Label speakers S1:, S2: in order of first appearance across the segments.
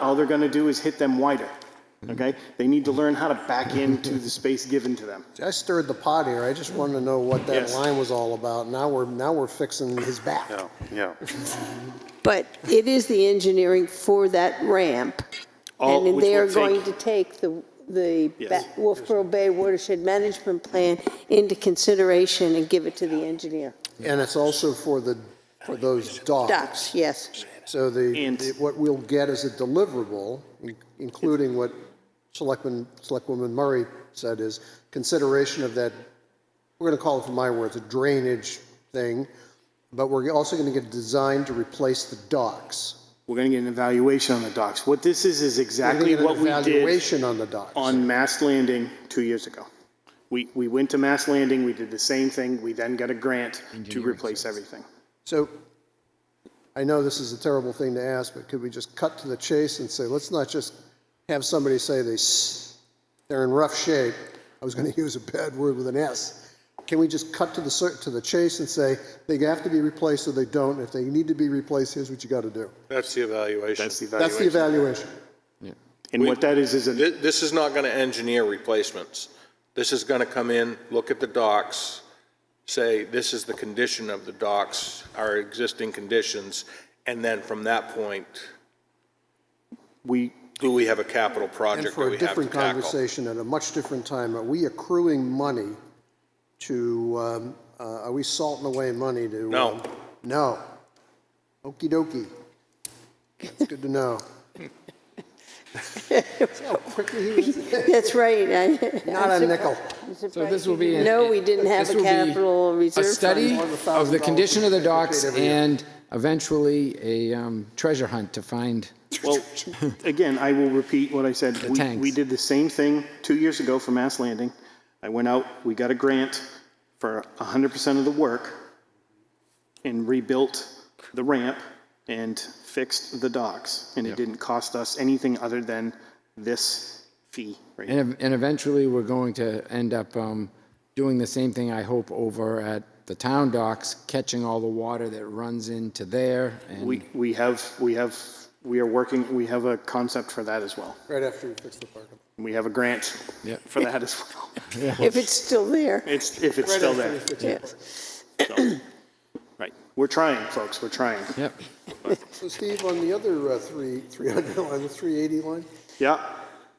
S1: all they're going to do is hit them wider.
S2: Mm-hmm.
S1: Okay? They need to learn how to back into the space given to them.
S2: I stirred the pot here. I just wanted to know what that
S1: Yes.
S2: line was all about. Now we're, now we're fixing his back.
S1: yeah.
S3: But it is the engineering for that ramp.
S1: All-
S3: And
S1: Oh, which
S3: they're
S1: will
S3: going
S1: take-
S3: to take the, the
S1: Yes.
S3: Ba- Wolfboro Bay Watershed Management Plan into consideration and give it to the engineer.
S2: And it's also for the, for those docks.
S3: Ducks, yes.
S2: So the,
S1: And-
S2: the- what we'll get as a deliverable, in- including what Selectman, Selectwoman Murray said is consideration of that, we're gonna call it, for my words, a drainage thing, but we're also gonna get a design to replace the docks.
S1: We're going to get an evaluation on the docks. What this is, is
S2: We're gonna
S1: exactly
S2: get an
S1: what we did
S2: Evaluation on the docks.
S1: on Mass Landing two years ago. We, we went to Mass Landing, we did the same thing, we then got a grant to replace everything.
S2: So I know this is a terrible thing to ask, but could we just cut to the chase and say, let's not just have somebody say they, s- they're in rough shape. I was going to use a bad word with an S. Can we just cut to the, cer- to the chase and say, they have to be replaced or they don't? If they need to be replaced, here's what you got to do.
S4: That's the evaluation.
S1: That's the
S2: That's the
S1: evaluation.
S2: evaluation.
S1: And what that is, is, a-
S4: Thi- This is not going to engineer replacements. This is going to come in, look at the docks, say, this is the condition of the docks, our existing conditions, and then from that point,
S1: we,
S4: do we have a capital
S2: And
S4: project that
S2: for
S4: we
S2: a
S4: have to
S2: different
S4: tackle?
S2: conversation at a much different time, are we accruing money to, um, uh, are we salting away money to?
S4: No.
S2: um, No. Okey dokey. That's good to know. See how quickly he was-
S3: That's right. I-
S2: Not a nickel.
S3: I'm
S5: So
S3: surprised
S5: this
S3: you
S5: will be.
S3: didn't know we didn't have
S5: this
S3: a
S5: will be
S3: capital reserve
S5: A
S3: fund.
S5: study of the
S2: $1,000
S5: condition of the docks
S2: every year.
S5: and eventually a um, treasure hunt to find.
S1: Well, again, I will repeat what I said. We-
S5: tanks.
S1: We did the same thing two years ago for Mass Landing. I went out, we got a grant for 100% of the work and rebuilt the ramp and fixed the docks. And it didn't cost us anything other than this fee. right here.
S5: And, ev- and eventually, we're going to end up um, doing the same thing, I hope, over at the town docks, catching all the water that runs into there. And
S1: We, we have, we have, we are working, we have a concept for that as well.
S2: Right after you fix the parking.
S1: We have a grant
S5: Yeah.
S1: for that as well.
S3: If it's still there,
S1: It's, if it's still
S2: Right after
S1: there.
S2: you fix the
S3: yeah.
S2: parking.
S1: so. Right. We're trying, folks, we're trying.
S5: Yep.
S2: So Steve, on the other uh, three, 300 line, the 380 line?
S1: Yeah.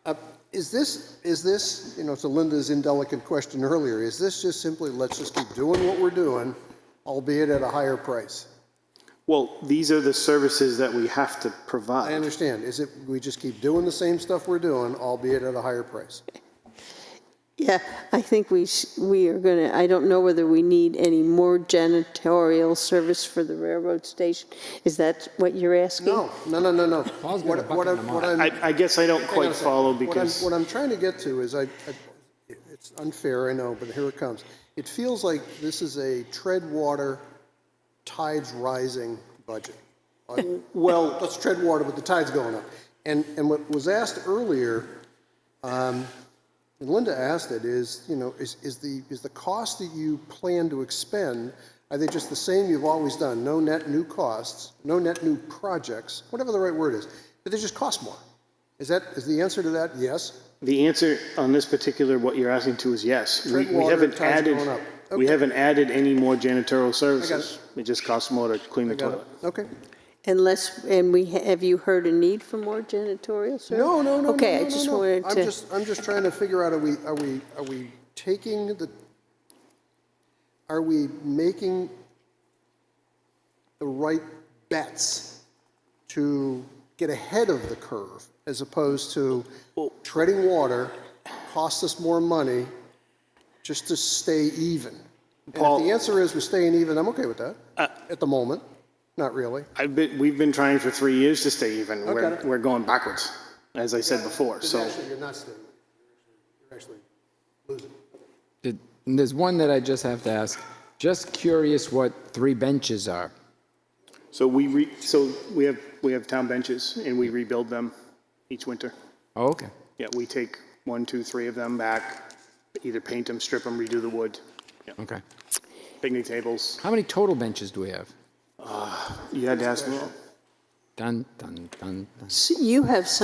S2: Uh, Is this, is this, you know, to Linda's indelicate question earlier, is this just simply, let's just keep doing what we're doing, albeit at a higher price?
S1: Well, these are the services that we have to
S2: I
S1: provide.
S2: understand, is it, we just keep doing the same stuff we're doing, albeit at a higher price?
S3: Yeah, I think we, sh- we are going to, I don't know whether we need any more janitorial service for the railroad station. Is that what you're asking?
S2: No, no, no, no, no.
S5: Paul's got a
S2: What-
S5: bucket
S2: what I'm-
S5: in the
S2: what
S5: mouth.
S2: I'm-
S1: I, I guess I don't
S2: Hang on
S1: quite
S2: a second.
S1: follow
S2: What I'm-
S1: because,
S2: What I'm trying to get to is I, I- it's unfair, I know, but here it comes. It feels like this is a tread water, tides rising budget. Uh,
S1: well,
S2: let's tread water with the tides going up. And, and what was asked earlier, um, and Linda asked it, is, you know, is, is the, is the cost that you plan to expend, are they just the same you've always done? No net new costs, no net new projects, whatever the right word is, but they just cost more. Is that, is the answer to that yes?
S1: the answer on this particular, what you're asking to is yes. We
S2: Tread
S1: we
S2: water,
S1: haven't
S2: tide's
S1: added,
S2: going up.
S1: we
S2: Okay.
S1: haven't added any more janitorial services. It just costs more to clean the
S2: Got
S1: toilet.
S2: it. Okay.
S3: Unless, and we, have you heard a need for more janitorial service?
S2: No, no, no, no.
S3: Okay,
S2: no,
S3: I
S2: no,
S3: just
S2: no.
S3: wanted
S2: I'm
S3: to,
S2: just, I'm just trying to figure out, are we, are we, are we taking the, are we making the right bets to get ahead of the curve as opposed to treading water, cost us more money just to stay even? And
S1: Paul-
S2: if the answer is we're staying even, I'm okay with that, at the moment. Not really.
S1: I've been, we've been trying for three years to stay even. We're,
S2: Okay.
S1: we're going backwards, as I said before, so.
S2: Actually, you're not staying. You're actually losing.
S5: Did- and There's one that I just have to ask. Just curious what three benches are.
S1: So we re, so we have, we have town benches and we rebuild them each winter.
S5: Oh, okay.
S1: Yeah, we take one, two, three of them back, either paint them, strip them, redo the wood,
S5: Okay.
S1: picnic tables.
S5: How many total benches do we have?
S1: You had to ask me.
S6: Dun, dun, dun, dun.
S5: S- You have